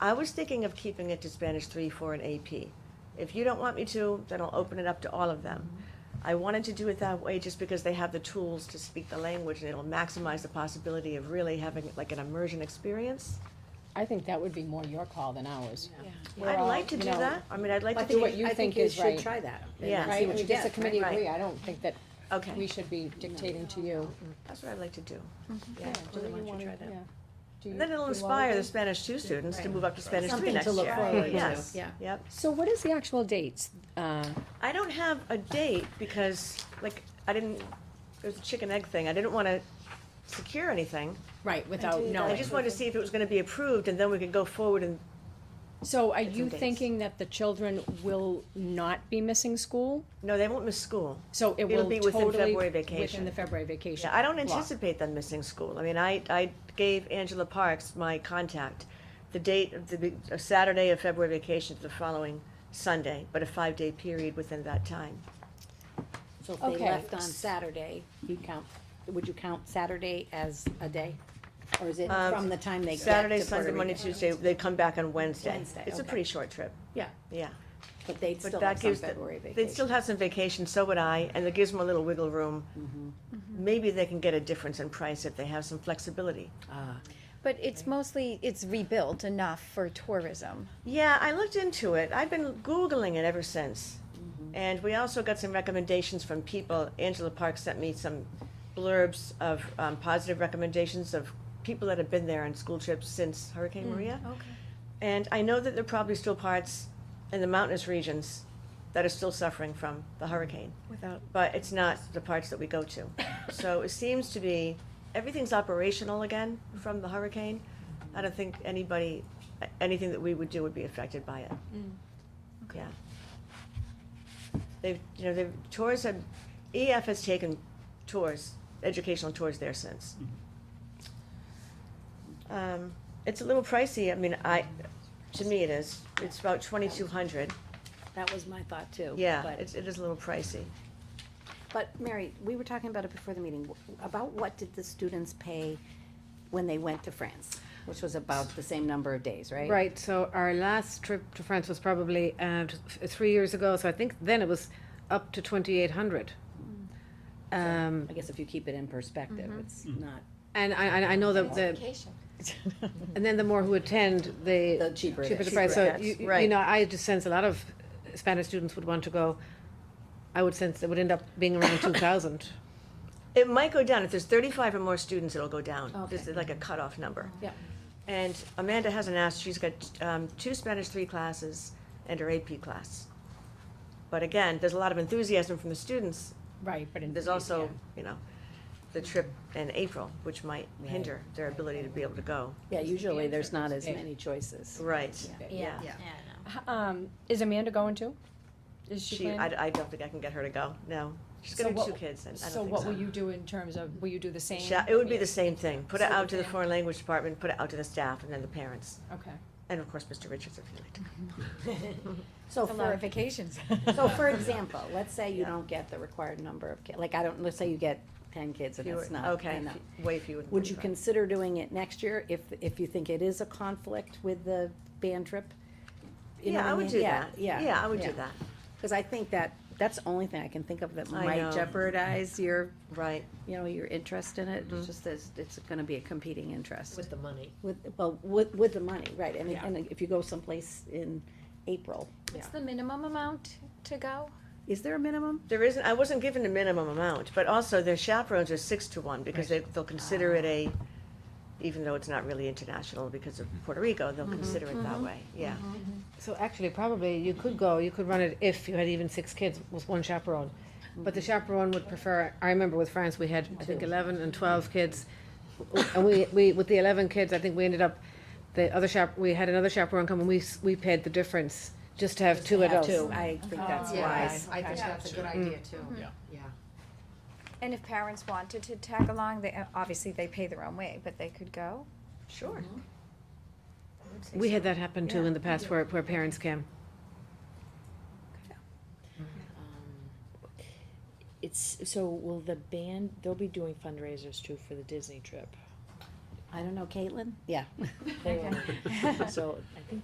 I was thinking of keeping it to Spanish three, four, and AP. If you don't want me to, then I'll open it up to all of them. Mm-hmm. I wanted to do it that way just because they have the tools to speak the language and it'll maximize the possibility of really having like an immersion experience. I think that would be more your call than ours. We're I'd all, like to you do know, that. I mean, I'd like I to think do what it. you think is I think right. you should try that. and Yeah. see Right, what we you just, a get. committee right. agree, I don't think that we Okay, should be dictating to you. that's what I'd like to do. Yeah, Do Julie, you why don't wanna- you try that? yeah. Do you- And then it'll do all of inspire the them? Spanish two students to Right. move up to Spanish three Something next to year. look forward to, Yes. yeah. Yep. So what is the actual date? Uh, I don't have a date because, like, I didn't, it was a chicken egg thing. I didn't want to secure anything. Right, without I knowing. just wanted to see if it was going to be approved and then we could go forward and, So are Get some you dates. thinking that the children will not be missing school? no, they won't miss school. So it It'll will be totally. within February Within vacation. the February vacation. Yeah, I don't block. anticipate them missing school. I mean, I, I gave Angela Parks my contact, the date of the, big- uh, Saturday of February vacation to the following Sunday, but a five-day period within that time. So if they Okay. left on Saturday, you count, would you count Saturday as a day? Or is it Um, from the time they get to Puerto Saturday, Sunday, Monday, Rico? Tuesday, they come back on Wednesday. Wednesday, It's a okay. pretty short trip, Yeah, yeah. but they'd But still that have some gives the- February They'd still vacation. have some vacation, so would I, and it gives them a little wiggle room. Mm-hmm. Maybe they can get a difference in price if they have some flexibility. Ah, But it's mostly, it's rebuilt enough for tourism. Yeah, I looked into it. I've been Googling it ever since. And we also got some recommendations from people. Angela Park sent me some blurbs of um, positive recommendations of people that have been there on school trips since Hurricane Maria. Okay. And I know that there are probably still parts in the mountainous regions that are still suffering from the hurricane. Without. but it's not the parts that we go to. So it seems to be, everything's operational again from the hurricane. I don't think anybody, anything that we would do would be affected by it. okay. Yeah. They've, you know, they've, tours have, EF has taken tours, educational tours there since. Um, It's a little pricey, I mean, I, to me it is. It's about twenty-two hundred. that was my thought too. Yeah, Oh, but- it's, it is a little pricey. But Mary, we were talking about it before the meeting, about what did the students pay when they went to France? Which was about the same number of days, right? Right, so our last trip to France was probably uh, t- f- three years ago, so I think then it was up to twenty-eight hundred. Um, I guess if you keep it in perspective, Mm-hmm. it's not, and I, I- I know that the, and then the more who attend, the the cheaper it cheaper the is. price, so Cheaper, you, yes, you right. know, I just sense a lot of Spanish students would want to go. I would sense it would end up being around two thousand. It might go down. If there's thirty-five or more students, it'll go down. There's Okay. like a cutoff number. Yeah. And Amanda hasn't asked, she's got, um, two Spanish three classes and her AP class. But again, there's a lot of enthusiasm from the students. Right, but in. There's also, you know, the trip in April, which might hinder their ability to be able to go. Yeah, usually there's not as many choices. Right, yeah. Yeah. yeah. Um, is Amanda going too? Is she She, planning? I, I don't think I can get her to go, no. She's So gonna have what- two kids and I So don't what will think you do in terms of, will you do the so. same? Sha- It would be the same thing. Put it So out to the then- foreign language department, put it out to the staff and then the parents. Okay. And of course, Mr. Richards, if you'd like to So A lot for, of vacations. so for example, let's say you Yeah. don't get the required number of kids, like I don't, let's say you get ten kids and Fewer- it's not Okay, enough. fe- way fewer. than Would you 35. consider doing it next year if, if you think it is a conflict with the band trip? You know what Yeah, I would mean? do Yeah, that. Yeah, I would yeah. do that. Cause I think that, that's the only thing I can think of that I know. might jeopardize your, Right. you know, your interest in it, Mm-hmm. it's just that it's gonna be a competing interest. With the money. With, well, with, with the money, right, and, Yeah. and if you go someplace in April, What's the minimum amount to go? is there a minimum? There isn't, I wasn't given a minimum amount, but also their chaperones are six to one because they, they'll consider it a, Oh. even though it's not really international because of Puerto Rico, Mm-hmm. they'll consider it that way, yeah. So actually, probably you could go, you could run it if you had even six kids with one chaperone. But the chaperone would prefer, I remember with France, we had, I think, eleven and twelve kids. And we, we, with the eleven kids, I think we ended up, the other chap, we had another chaperone come and we, s- we paid the difference just to have two I have adults. Mm. to. I think Oh, that's wise. I think that's a good idea too. Yeah. Yeah. And if parents wanted to tag along, they, obviously they pay their own way, but they could go? Sure. We had that happen too Yeah. in the past where, where parents came. Um, It's, so will the band, they'll be doing fundraisers too for the Disney trip. I don't know, Caitlin? Yeah. They were- So I think